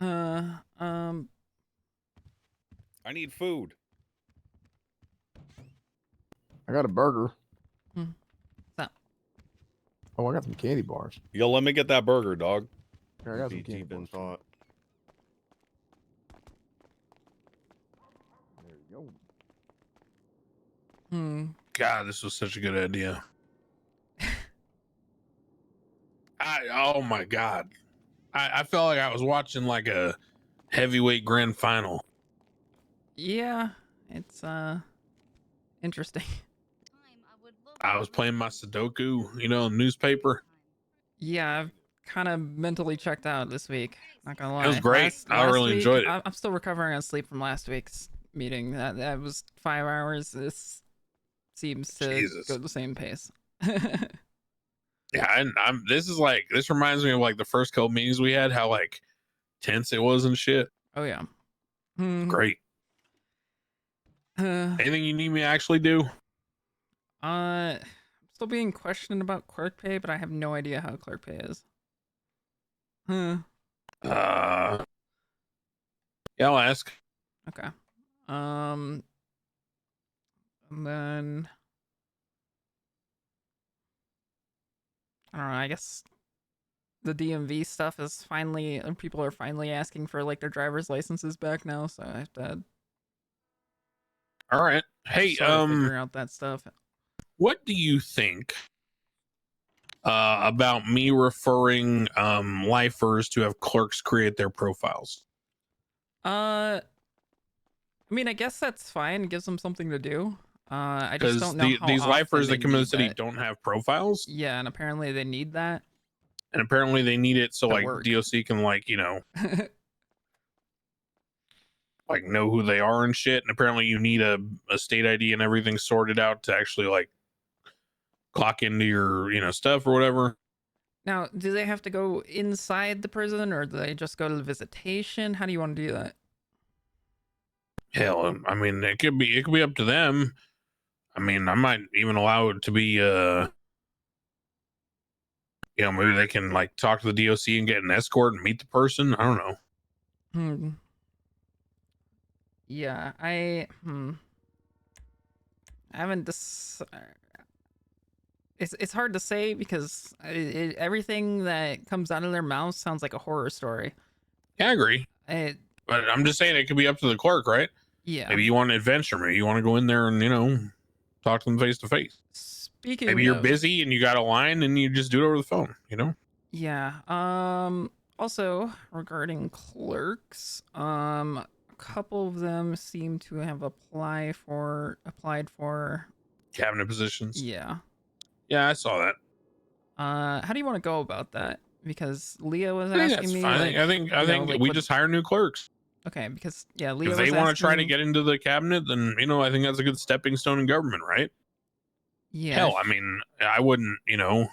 Uh, um, I need food. I got a burger. Hmm. Stop. Oh, I got some candy bars. Yo, let me get that burger, dog. Here, I got some Be candy deep in bars. thought. There you go. hmm. God, this was such a good idea. I oh my god, I, I felt like I was watching like a heavyweight grand final. Yeah, it's uh interesting. I was playing my Sudoku, you know, newspaper. Yeah, I've kind of mentally checked out this week. Not gonna lie, was great. I really week- enjoyed it. I- I'm still recovering on sleep from last week's meeting. That that was five hours. This seems to Jesus. go at the same pace. Yeah, and I'm. This is like this reminds me of like the first couple meetings we had, how like tense it was and shit. oh yeah. Hmm, Great. uh, Anything you need me to actually do? uh, I'm still being questioned about clerk pay, but I have no idea how clerk pay is. Huh. Uh, yeah, I'll ask. Okay. Um and then I don't know, I guess the DMV stuff is finally and people are finally asking for like their driver's licenses back now, so I have to All right. Hey, sort of um, figure out that stuff. what do you think uh, about me referring um, lifers to have clerks create their profiles? Uh I mean I guess that's fine, it gives them something to do. Uh I just Because don't know. how these often lifers they that come to the need city that. Mm. don't have profiles, Yeah, and apparently they need that. and apparently they need it so To like work. DOC can like you know like know who they are and shit. And apparently you need a, a state ID and everything sorted out to actually like clock into your you know stuff or whatever. Now, do they have to go inside the prison or do they just go to the visitation? How do you want to do that? Hell, um, I mean it could be it could be up to them. I mean I might even allow it to be uh you know maybe they can like talk to the DOC and get an escort and meet the person. I don't know. Hmm. Yeah, I hmm. I haven't dis- uh, it's it's hard to say because i it, everything that comes out of their mouth sounds like a horror story. Yeah, I agree. It, But I'm just saying it could be up to the clerk, right? yeah. Maybe you want an adventure. Maybe you want to go in there and, you know, talk to them face to face. Speaking Maybe you're of- busy and you got a line and you just do it over the phone, you know? Yeah. Um also regarding clerks, um a couple of them seem to have apply for applied for Cabinet positions. Yeah, yeah. I saw that. Uh how do you want to go about that? Because Leah was I think asking that's me fine. like, I think I you know, think like, we what- just hire new clerks. okay, because yeah, Leah If was they want to try to asking- get into the cabinet, then you know I think that's a good stepping stone in government, right? yeah, Hell, I mean, I wouldn't, you know,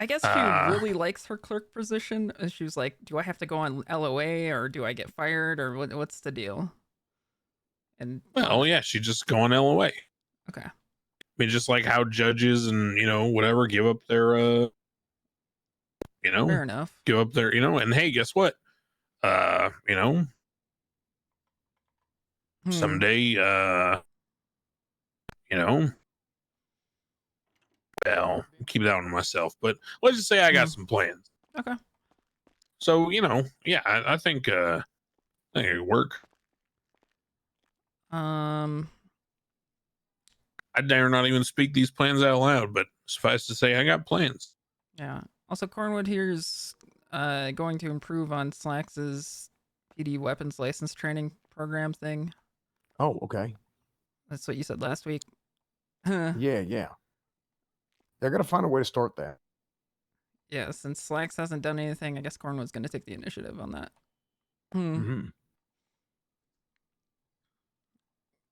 I guess she uh, really likes her clerk position. And she was like, "Do I have to go on LOA or do I get fired or what, what's the deal?" And well, yeah, she just go on LOA. Okay. I mean, just like how judges and you know whatever give up their, uh you know, fair enough. give up their you know and hey guess what uh you know Hmm. someday uh you know well keep that one to myself but let's just say i got Mhm. some plans Okay. so you know yeah i, I think uh i think it could work Um i dare not even speak these plans out loud but suffice to say i got plans Yeah. Also, Cornwood here is uh, going to improve on Slax's PD weapons license training program thing. Oh, okay. That's what you said last week. Huh. Yeah, yeah. They're gonna find a way to start that. yeah, since Slax hasn't done anything, I guess Cornwood's going to take the initiative on that. Hmm. Mm. Mm-hmm.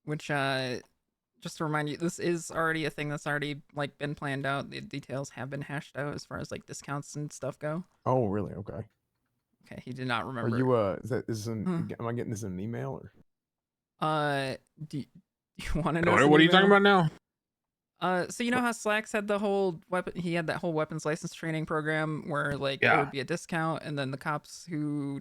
Which, uh, just to remind you, this is already a thing that's already like been planned out. The details have been hashed out as far as like discounts and stuff go. Oh, really? Okay. Okay, he did not remember. Are you uh? Is that is an, Hmm. am I getting this in an email or? uh, do, do you want to know? what, some what are you talking email? about now Uh, so you know how Slacks had the whole weapon? He had that whole weapons license training program where like there Yeah. would be a discount, and then the cops who